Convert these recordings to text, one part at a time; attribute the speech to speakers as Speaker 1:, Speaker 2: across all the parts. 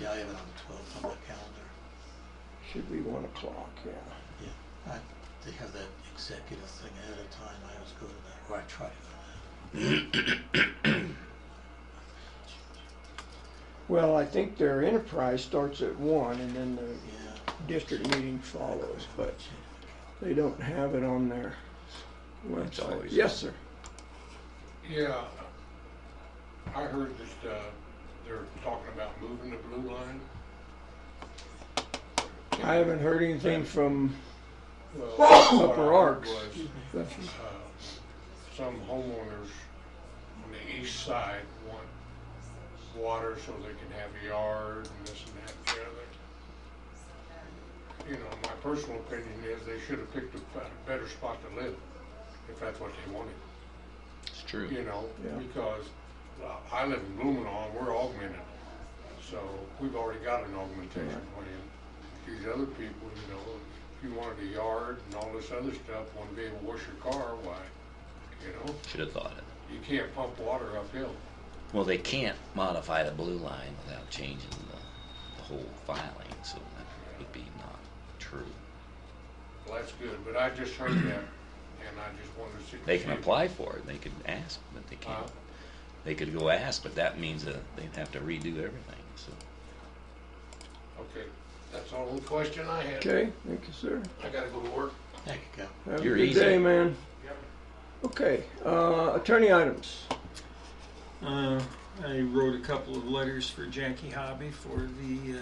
Speaker 1: Yeah, I have it on the twelfth on my calendar.
Speaker 2: Should be one o'clock, yeah.
Speaker 1: Yeah, I, they have that executive thing ahead of time. I always go to that, or I try to go to
Speaker 2: Well, I think their enterprise starts at one and then
Speaker 1: that.
Speaker 2: the
Speaker 1: Yeah.
Speaker 2: district meeting follows, but they don't have it on their
Speaker 3: That's
Speaker 2: website.
Speaker 3: always-
Speaker 2: Yes, sir.
Speaker 4: Yeah, I heard that, uh, they're talking about moving the blue line.
Speaker 2: I haven't heard anything from,
Speaker 4: Well, what I
Speaker 2: Upper
Speaker 4: heard
Speaker 2: Arcs.
Speaker 4: was,
Speaker 2: the-
Speaker 4: uh, Some homeowners on the east side want water so they can have a yard and this and that and the other. You know, my personal opinion is they should have picked a bet- better spot to live, if that's what they wanted.
Speaker 3: It's true.
Speaker 4: you know,
Speaker 2: Yeah.
Speaker 4: because uh, I live in Blumenau, we're augmented. So we've already got an augmentation plan. These other people, you know, if you wanted a yard and all this other stuff, want to be able to wash your car, why, you know,
Speaker 3: Should have thought it.
Speaker 4: you can't pump water uphill.
Speaker 3: Well, they can't modify the blue line without changing the, the whole filing, so that would be not true.
Speaker 4: Well, that's good, but I just heard that and I just wanted to see.
Speaker 3: They can apply for it, they could ask, but they
Speaker 4: Uh,
Speaker 3: can't. They could go ask, but that means that they'd have to redo everything, so.
Speaker 4: Okay, that's all the question I had.
Speaker 2: okay, thank you, sir.
Speaker 4: I gotta go to work.
Speaker 1: Thank you, Cal.
Speaker 2: Have a
Speaker 3: You're
Speaker 2: good
Speaker 3: easy.
Speaker 2: day, man.
Speaker 4: Yep.
Speaker 2: Okay, uh, attorney items.
Speaker 5: Uh, I wrote a couple of letters for Jackie Hobby for the uh,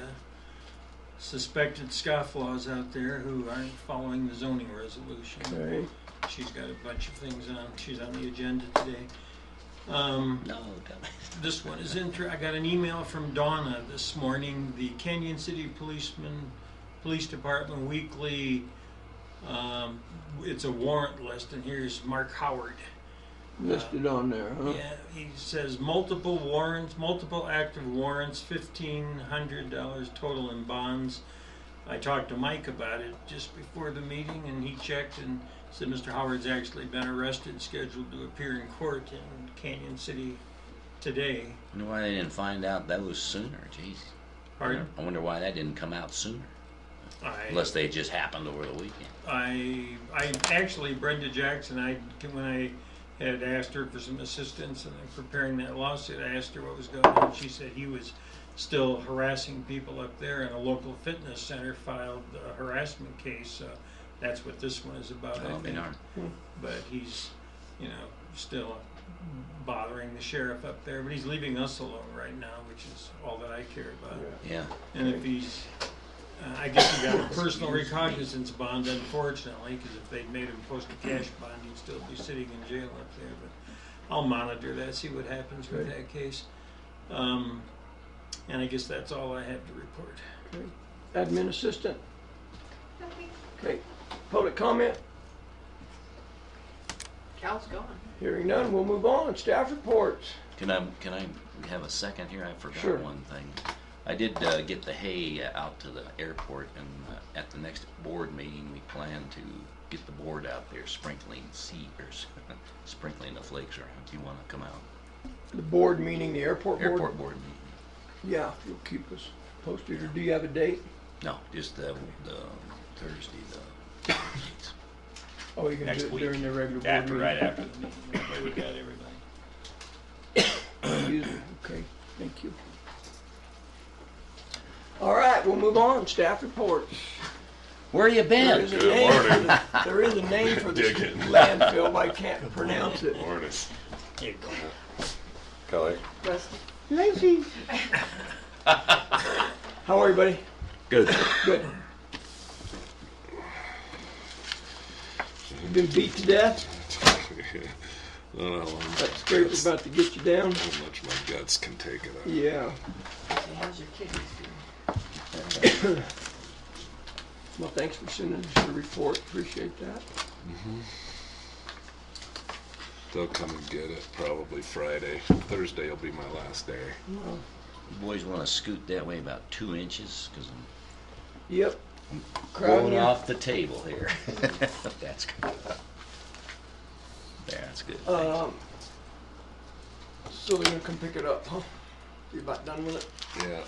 Speaker 5: suspected scofflaws out there who aren't following the zoning resolution.
Speaker 2: Okay,
Speaker 5: She's got a bunch of things on. She's on the agenda today. Um,
Speaker 3: No, dumbass.
Speaker 5: this one is inter. I got an email from Donna this morning. The Canyon City Policeman Police Department Weekly. Um, it's a warrant list, and here's Mark Howard.
Speaker 2: listed on there, huh?
Speaker 5: Yeah, he says multiple warrants, multiple active warrants, fifteen hundred dollars total in bonds. I talked to Mike about it just before the meeting and he checked and said Mr. Howard's actually been arrested, scheduled to appear in court in Canyon City today.
Speaker 3: Wonder why they didn't find out those sooner, jeez.
Speaker 5: Pardon?
Speaker 3: I wonder why that didn't come out sooner,
Speaker 5: I,
Speaker 3: unless they just happened over the weekend.
Speaker 5: I, I actually Brenda Jackson, I, when I had asked her for some assistance in preparing that lawsuit, I asked her what was going on. She said he was still harassing people up there and a local fitness center filed a harassment case. So that's what this one is about, I
Speaker 3: Oh,
Speaker 5: think.
Speaker 3: darn.
Speaker 5: But he's, you know, still bothering the sheriff up there, but he's leaving us alone right now, which is all that I care about.
Speaker 3: Yeah,
Speaker 5: And if he's, uh, I guess he got a personal recognizance bond unfortunately, because if they'd made him post a cash bond, he'd still be sitting in jail up there, but I'll monitor that, see what happens with
Speaker 2: Okay.
Speaker 5: that case. Um, and I guess that's all I have to report.
Speaker 2: Admin assistant. Okay, public comment,
Speaker 6: Cal's gone.
Speaker 2: hearing none, we'll move on, staff reports.
Speaker 3: Can I, can I have a second here? I
Speaker 2: Sure.
Speaker 3: forgot one thing. I did uh, get the hay out to the airport and uh, at the next board meeting, we plan to get the board out there sprinkling seed or s- sprinkling the flakes around. Do you want to come out?
Speaker 2: The board meaning the airport board?
Speaker 3: Airport board meeting.
Speaker 2: Yeah, if you'll keep us posted, or do you have a date?
Speaker 3: No, just the, the Thursday, the.
Speaker 2: Oh, you're gonna
Speaker 3: Next
Speaker 2: do it
Speaker 3: week.
Speaker 2: during the regular board meeting?
Speaker 3: after.
Speaker 5: Everybody, we got everybody.
Speaker 2: Excuse me. Okay, thank you. All right, we'll move on, staff reports.
Speaker 3: Where you
Speaker 2: There is a
Speaker 3: been?
Speaker 2: name for the- There is a name for this landfill, but I can't pronounce it.
Speaker 7: Morning.
Speaker 5: Here you go.
Speaker 7: Kelly.
Speaker 6: Rusty.
Speaker 2: Lacy. How are you, buddy?
Speaker 3: Good.
Speaker 2: Good. You been beat to death?
Speaker 7: I don't know how long
Speaker 2: That scraper's about to get you down?
Speaker 7: how much my guts can take it. out.
Speaker 2: Yeah,
Speaker 6: So how's your kidneys doing?
Speaker 2: well, thanks for sending us your report, appreciate that.
Speaker 7: They'll come and get it probably Friday. Thursday will be my last day.
Speaker 2: Well,
Speaker 3: You boys want to scoot that way about two inches, because I'm
Speaker 2: Yep. Crowd
Speaker 3: Going
Speaker 2: in.
Speaker 3: off the table here. That's good.
Speaker 2: Uh,
Speaker 3: That's good. thanks.
Speaker 2: Um, so they're gonna come pick it up, huh? You about done with it?
Speaker 7: Yeah.